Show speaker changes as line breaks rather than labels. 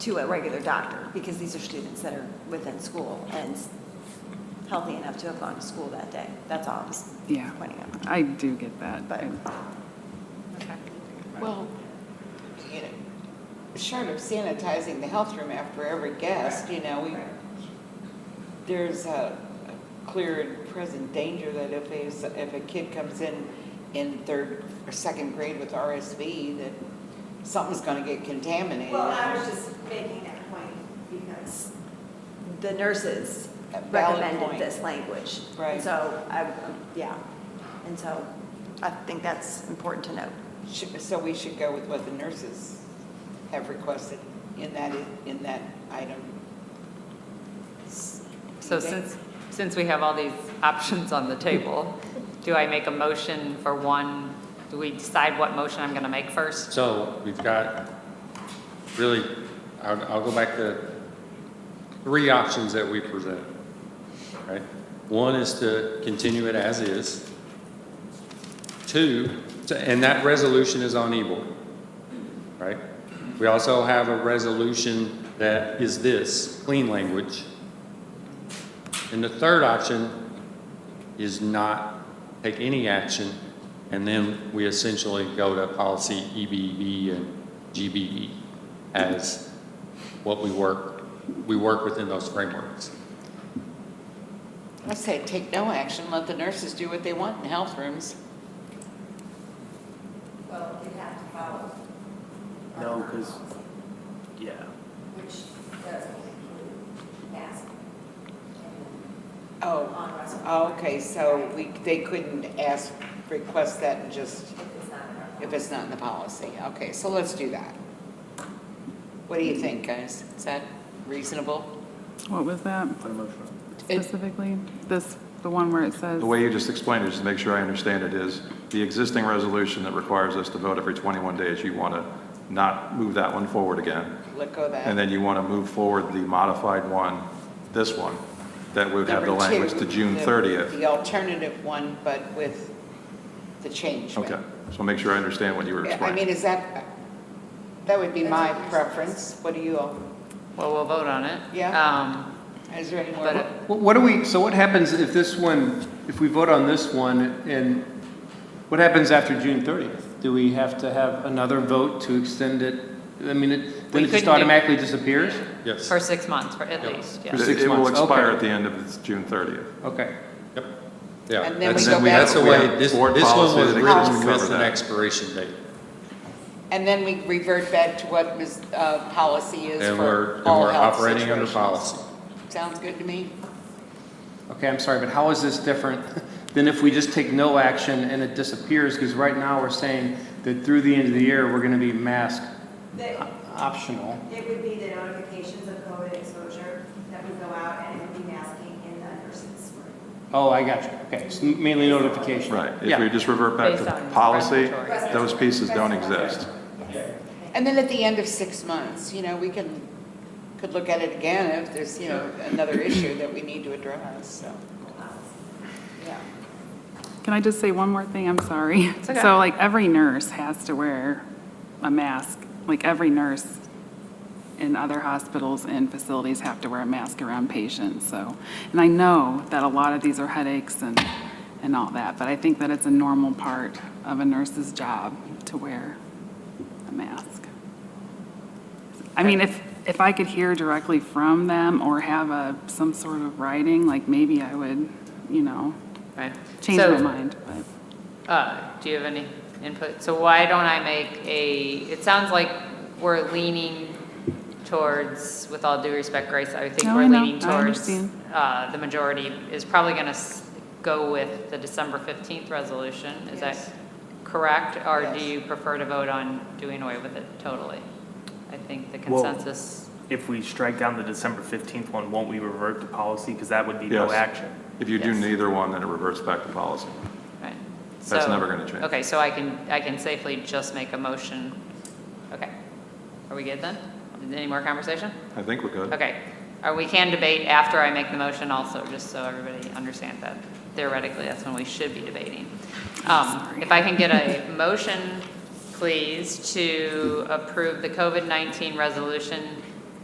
to a regular doctor, because these are students that are within school and healthy enough to have gone to school that day. That's all I was
Yeah.
pointing out.
I do get that.
But-
Well, you know, short of sanitizing the health room after every guest, you know, we, there's a a clear and present danger that if a, s- if a kid comes in, in third or second grade with RSV, that something's gonna get contaminated.
Well, I was just making that point because the nurses
A valid
recommended
point.
this language. And
Right.
So I, um, yeah, and so I think that's important to note.
Sh- So we should go with what the nurses have requested in that, i- in that item.
So
Okay.
since, since we have all these options on the table, do I make a motion for one? Do we decide what motion I'm going to make first?
So we've got, really, I'll, I'll go back to three options that we presented, right? One is to continue it as is. Two, to- and that resolution is on e-board, right? We also have a resolution that is this, clean language. And the third option is not take any action, and then we essentially go to policy EBB and GBE as what we work, we work within those frameworks.
I say, take no action, let the nurses do what they want in health rooms.
Well, it have to follow. our
No, 'cause-
policy,
Yeah.
Which doesn't include masks and
Oh,
on restaurant
oh, okay, so we, they couldn't ask, request that and just,
if it's not in our
if it's not in the policy. Okay, so let's do that. What do you think, guys? Is that reasonable?
What was that
Put a motion on.
It-
specifically? This, the one where it says?
The way you just explained it, just to make sure I understand it, is the existing resolution that requires us to vote every 21 days, you want to not move that one forward again,
Let go of that.
and then you want to move forward the modified one, this one, that would have the
Number two,
language to June
the-
30th.
The alternative one, but with the change.
Okay, so make sure I understand what you were
I mean,
explaining.
is that, that would be my preference. What do you all,
Well, we'll vote on it.
Yeah.
Um,
is there any more?
But it-
What what do we, so what happens if this one, if we vote on this one, and what happens after June 30th? Do we have to have another vote to extend it? I mean, it-
We
then it
couldn't
just
do-
automatically disappears?
Yes.
For six months, for at least, yeah.
For six
It will
months, okay.
expire at the end of this June 30th.
Okay.
Yep. Yeah.
And then we
that's-
go back-
That's the
We
way,
have
this, this one
board
was
policy that exists
written
to
with
cover
an
that.
expiration date.
And then we revert back to what Ms., uh, policy is
And we're,
for
and
all
we're
health
operating under
situations.
policy.
Sounds good to me.
Okay, I'm sorry, but how is this different than if we just take no action and it disappears? Because right now, we're saying that through the end of the year, we're going to be mask
They-
optional.
It would be the notifications of COVID exposure that would go out and it would be masking in the nurses' room.
Oh, I got you. Okay, so mainly notification.
Right, if we
Yeah.
just revert back
Based on
to policy,
regulatory.
those pieces don't exist.
And then at the end of six months, you know, we can, could look at it again if there's, you know, another issue that we need to address, so. Yeah.
Can I just say one more thing? I'm sorry.
okay.
So like every nurse has to wear a mask, like every nurse in other hospitals and facilities have to wear a mask around patients, so. And I know that a lot of these are headaches and, and all that, but I think that it's a normal part of a nurse's job to wear a mask. I mean, if, if I could hear directly from them or have a, some sort of writing, like maybe I would, you know,
Right.
change
So,
my mind, but.
Uh, do you have any input? So why don't I make a, it sounds like we're leaning towards, with all due respect, Grace, I think
No,
we're
I know.
leaning
I
towards,
understand.
uh, the majority is probably gonna s- go with the December fifteenth resolution, is that
Yes.
correct? Or do
Yes.
you prefer to vote on doing away with it totally? I think the
Well-
consensus,
If we strike down the December 15th one, won't we revert to policy? Because that would be no
Yes.
action.
If you do
Yes.
neither one, then it reverts back to policy.
right?
That's
So-
never gonna change.
Okay, so I can, I can safely just make a motion, okay. Are we good then? Any more conversation?
I think we're good.
Okay, or we can debate after I make the motion also, just so everybody understands that. Theoretically, that's when we should be debating. Um, If I can get a motion, please, to approve the COVID-19 resolution